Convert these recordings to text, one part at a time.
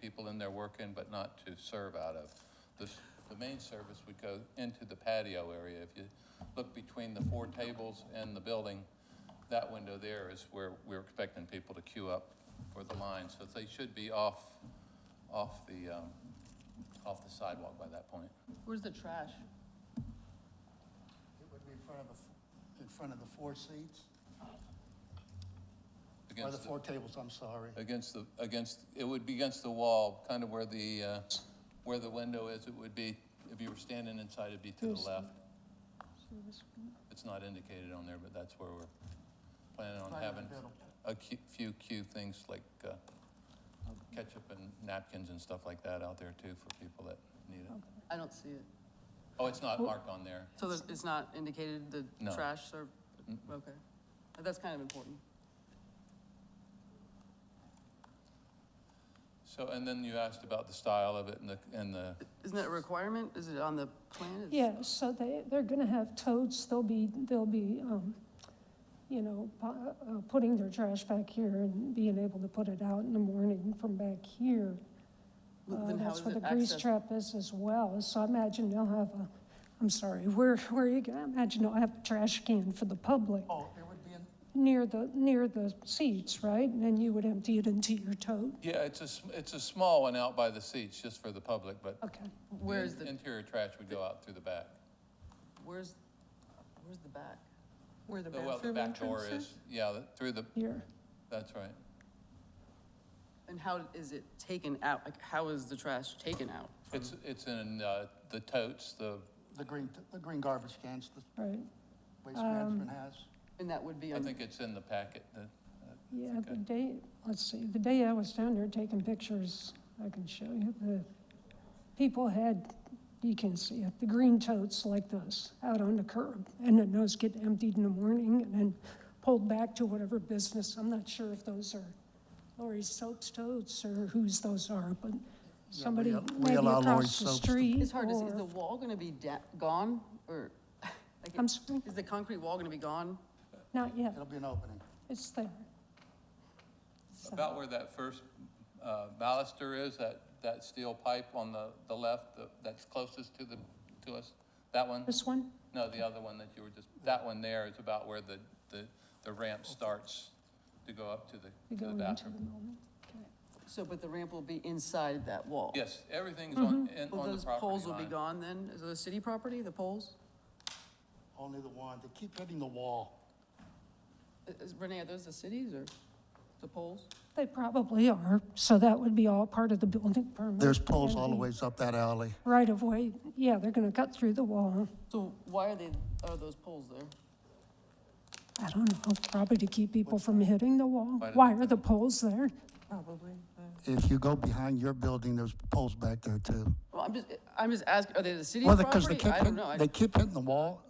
people in there working, but not to serve out of. The, s- the main service would go into the patio area. If you look between the four tables and the building, that window there is where we're expecting people to queue up for the line. So they should be off, off the, um, off the sidewalk by that point. Where's the trash? It would be in front of the, f- in front of the four seats, or the Against the- four tables, I'm sorry. Against the, against, it would be against the wall, kind of where the, uh, where the window is, it would be, if you were standing inside, it'd be to the left. It's not indicated on there, but that's where we're planning on Right in the having middle. a cu- few cute things like uh, ketchup and napkins and stuff like that out there too for people that need it. I don't see it. Oh, it's not marked on there. So there's- it's not indicated the No. trash or, okay. That's kind of important. So, and then you asked about the style of it and the, and the, Isn't that a requirement? Is it on the plan? It's- Yeah, so they, they're gonna have totes, they'll be, they'll be, um, you know, pu- uh, putting their trash back here and being able to put it out in the morning from back here. Well, Uh, Then how That's is where the it grease accessed? trap is as well, so I imagine they'll have a, I'm sorry, where, where are you gonna, I imagine they'll have a trash can for the public Oh, it would be in, near the, near the seats, right? And then you would empty it into your tote, yeah, it's a, sm- it's a small one out by the seats, just for the public, but okay. Where is the, Interior trash would go out through the back. where's, where's the back? Where the The- Well, the bathroom back entrance door is? is, yeah, the- through the, Here, that's right. And how is it taken out? Like, how is the trash taken out? It's, it's in uh, the totes, the, the green, the green garbage cans that right, Waste Management has. And that would be I on, think it's in the packet, the- yeah, the okay. day, let's see, the day I was down there taking pictures, I can show you, the people had, you can see it, the green totes like this, out on the curb, and then those get emptied in the morning and then pulled back to whatever business, I'm not sure if those are Lori's Soaps totes or whose those are, but somebody al- we maybe allow Lori's across the Soaps to- street it's hard to see, is or- the wall going to be da- gone or? like, I'm sorry, Is the concrete wall going to be gone? not yet, It'll be an opening. it's there. So- about where that first uh, baluster is, that, that steel pipe on the, the left, the- that's closest to the, to us, that one? This one? No, the other one that you were just, that one there is about where the, the the ramp starts to go up to We the, go to the into the bathroom. moment. Okay. So, but the ramp will be inside that wall? Yes, everything's on, in- Well, on those the property poles will be line. gone then? Is it the city property, the poles? Only the one, they keep hitting the wall. I- is- Renee, are those the cities or the poles? They probably are, so that would be all part of the building permit. There's poles and all the ways up that alley. Right of way, yeah, they're gonna cut through the wall. So why are they, are those poles there? I don't know, probably to keep people from hitting the wall. Why did Why they are the poles there? Probably. yeah. If you go behind your building, there's poles back there too. Well, I'm just, I'm just asking, are they the city's Well, because they property? I keep, don't hit- know. I- they keep hitting the wall,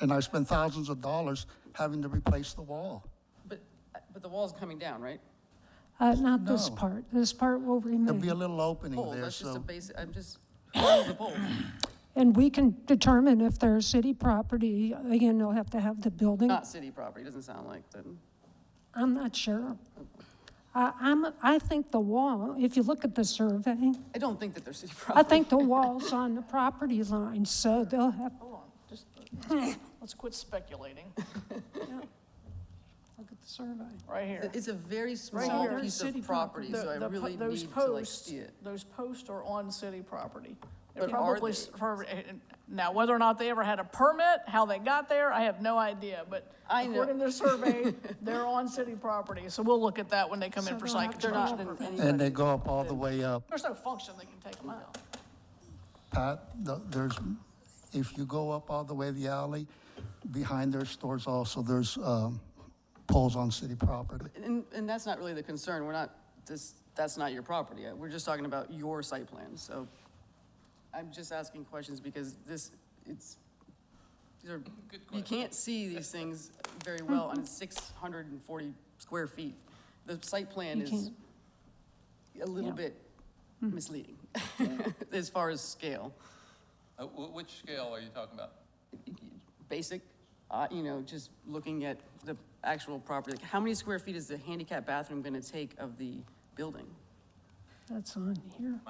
and I spend thousands of dollars having to replace the wall. But, but the wall's coming down, right? Uh, not this No. part, this part will There'll be a remain. little opening Poles, there, that's just a so basic, I'm just, what is the poles? And we can determine if they're city property, again, they'll have to have the building. Not city property, doesn't sound like then. I'm not sure. I, I'm, I think the wall, if you look at the survey, I don't think that they're city I property. think the wall's on the property line, so they'll have, Hold on, just, let's quit speculating, look at the survey. right here. It's a very Right small here. piece City of property, so The- I the po- really those need to like posts- see it. Those posts are on city property. But They're are probably, they? s- for- now, whether or not they ever had a permit, how they got there, I have no idea, but I know- according to the survey, they're on city property, so we'll look at that when they come in So for they'll site have to They're not construction. in any. and they go up all the way up. There's no function they can take them out. Pat, th- there's, if you go up all the way the alley, behind their stores also, there's um, poles on city property. And, and that's not really the concern, we're not, this, that's not your property, Uh, we're just talking about your site plan, so I'm just asking questions because this, it's, these are, you can't see these things very well on six hundred and forty square feet. The site plan You is can't. Hmm. a little bit misleading as far as scale. Uh, wh- Which scale are you talking about? Basic, uh, you know, just looking at the actual property, how many square feet is the handicap bathroom gonna take of the building? That's on here.